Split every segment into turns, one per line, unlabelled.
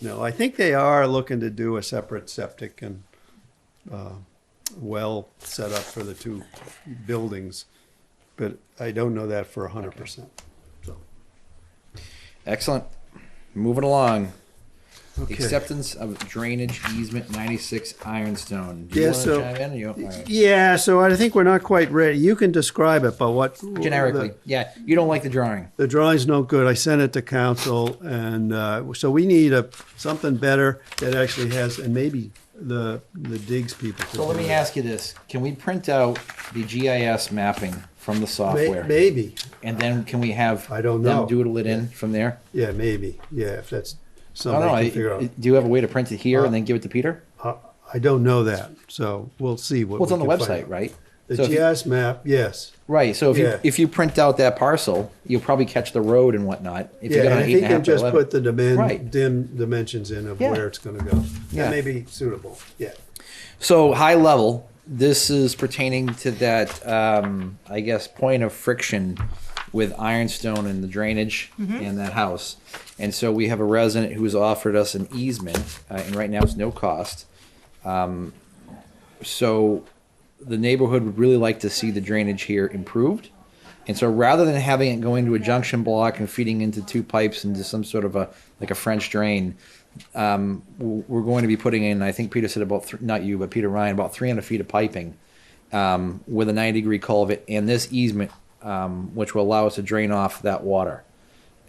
No, I think they are looking to do a separate septic and uh, well set up for the two buildings, but I don't know that for a hundred percent. So,
Excellent. Moving along.
okay.
Acceptance of drainage easement 96 Ironstone. Do you
Yeah,
want to
so-
chime in? Or you, all right.
Yeah, so I think we're not quite ready. You can describe it, but what?
Generically, yeah. You don't like the drawing.
the drawing's no good. I sent it to council, and uh, so we need a something better that actually has, and maybe the the digs people. could
So let
do
me
it.
ask you this. Can we print out the GIS mapping from the
May-
software?
Maybe,
And then can we have
I don't know.
them doodle it in from there?
yeah, maybe, yeah. If that's
I don't
something
know.
I
I-
can figure out. Uh,
Do you have a way to print it here and then give it to Peter?
I, I don't know that, so we'll see what.
Well, it's
we
on the
can find
website,
out.
right?
The
So if you-
GIS map, yes.
Right. So if
Yeah.
you if you print out that parcel, you'll probably catch the road and whatnot. If you
Yeah,
got
and
an
if
eight
he
and a half
can
by
just
11.
put the dimen,
Right.
dim dimensions in of
Yeah.
where it's gonna go,
Yeah.
that may be suitable, yeah.
So high level, this is pertaining to that, um, I guess, point of friction with ironstone and the drainage in that house. And so we have a resident who's offered us an easement, uh, and right now it's no cost. Um, so the neighborhood would really like to see the drainage here improved. And so rather than having it go into a junction block and feeding into two pipes into some sort of a, like a French drain, um, w- we're going to be putting in, I think Peter said about, th- not you, but Peter Ryan, about 300 feet of piping um, with a 90 degree culvert and this easement, um, which will allow us to drain off that water.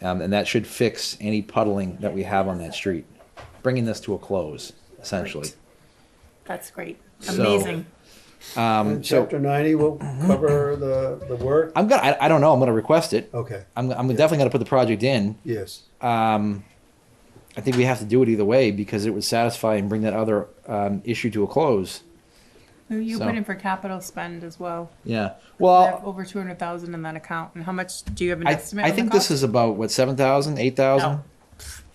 Um, and that should fix any puddling that we have on that street, bringing this to a close, essentially.
That's great.
So-
Amazing.
Um, so
Chapter ninety will cover the, the work,
I'm gonna, I, I don't know, I'm gonna request it.
okay,
I'm, I'm definitely gonna put the project in.
yes.
I think we have to do it either way because it would satisfy and bring that other um, issue to a close.
Who you
So-
put in for capital spend as well?
Yeah.
We
Well,
have over two hundred thousand in that account, and how much, do you have an
I,
estimate
I
on the
think this
cost?
is about what 7,000, 8,000
No.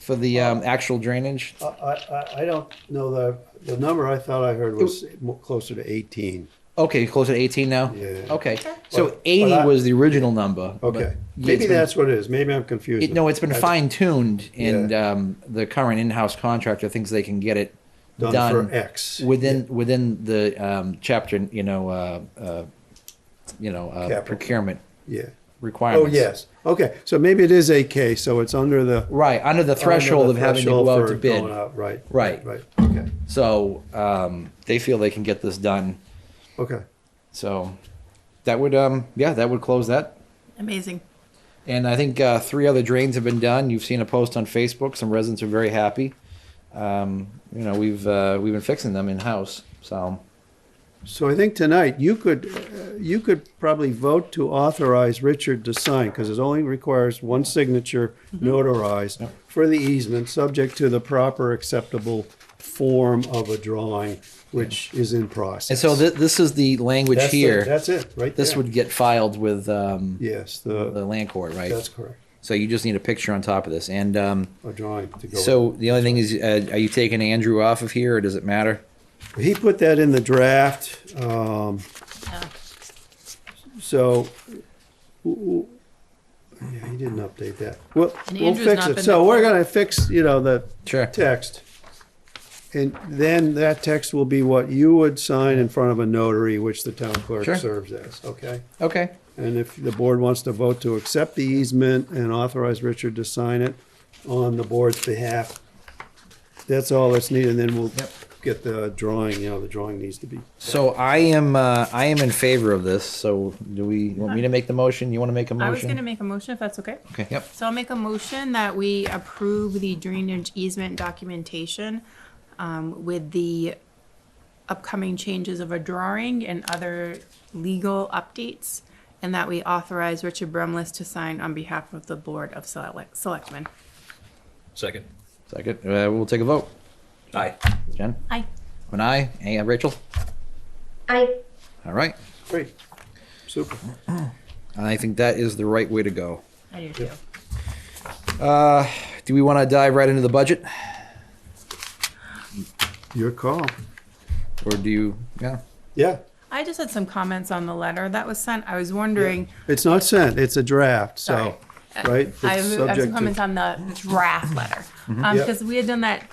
for the um, actual drainage.
I, I, I don't know the, the number I thought I heard was mo- closer to eighteen.
Okay, close to 18 now.
Yeah.
Okay. So
But-
80
but I-
was the original number. but
Okay,
yeah,
maybe
it's been-
that's what it is, maybe I'm confused.
It, no, it's been fine tuned, and
Yeah.
um, the current in-house contractor thinks they can get it done,
Done for X.
within within the um, chapter, you know, uh, uh, you know, uh,
Capital.
procurement
Yeah, oh,
requirements.
yes, okay, so maybe it is a K, so it's under the.
Right, under the threshold
under
of
the
having to
threshold
go out
for
to bid.
going out, Right.
Right.
Right, okay,
So um, they feel they can get this done.
okay.
So that would, um, yeah, that would close that.
Amazing.
And I think uh, three other drains have been done. You've seen a post on Facebook. Some residents are very happy. Um, you know, we've uh, we've been fixing them in house. So
So I think tonight, you could, uh, you could probably vote to authorize Richard to sign, because it only requires one signature notarized for the easement, subject to the proper acceptable form of a drawing, which is in process.
and so th- this is the language
That's it,
here.
That's it, right
this
there.
would get filed with um,
Yes,
the
the,
land court, right?
that's correct,
so you just need a picture on top of this. And um,
a drawing to go.
so the only thing is, uh, are you taking Andrew off of here, or does it matter?
with. He put that in the draft, um,
Yeah.
so, w- w- yeah, he didn't update that. We'll,
And
we'll
Andrew's
fix
not
it.
been
So
the-
we're gonna fix, you know, the
Sure.
text. And then that text will be what you would sign in front of a notary, which the town clerk
Sure.
serves as, okay?
Okay.
And if the board wants to vote to accept the easement and authorize Richard to sign it on the board's behalf, that's all that's needed, and then we'll
Yep.
get the drawing, you know, the drawing needs to be.
So I am uh, I am in favor of this. So do we you want me to make the motion? You want to make a motion?
I was gonna make a motion if that's okay.
Okay. Yep.
So I'll make a motion that we approve the drainage easement documentation um, with the upcoming changes of a drawing and other legal updates, and that we authorize Richard Bremlis to sign on behalf of the Board of Select- Selectmen.
Second.
Second. Uh, we'll take a vote.
Aye.
Jen,
Aye.
an aye. And Rachel.
I
All right.
Great, super.
And I think that is the right way to go.
I do too.
Do we want to dive right into the budget,
Your call.
or do you? Yeah.
Yeah,
I just had some comments on the letter that was sent. I was wondering,
it's not sent, it's a draft, so,
Sorry.
right?
I
It's
have I have
subject
some
to-
comments on the draft letter. Um,
Yep.
because we had done that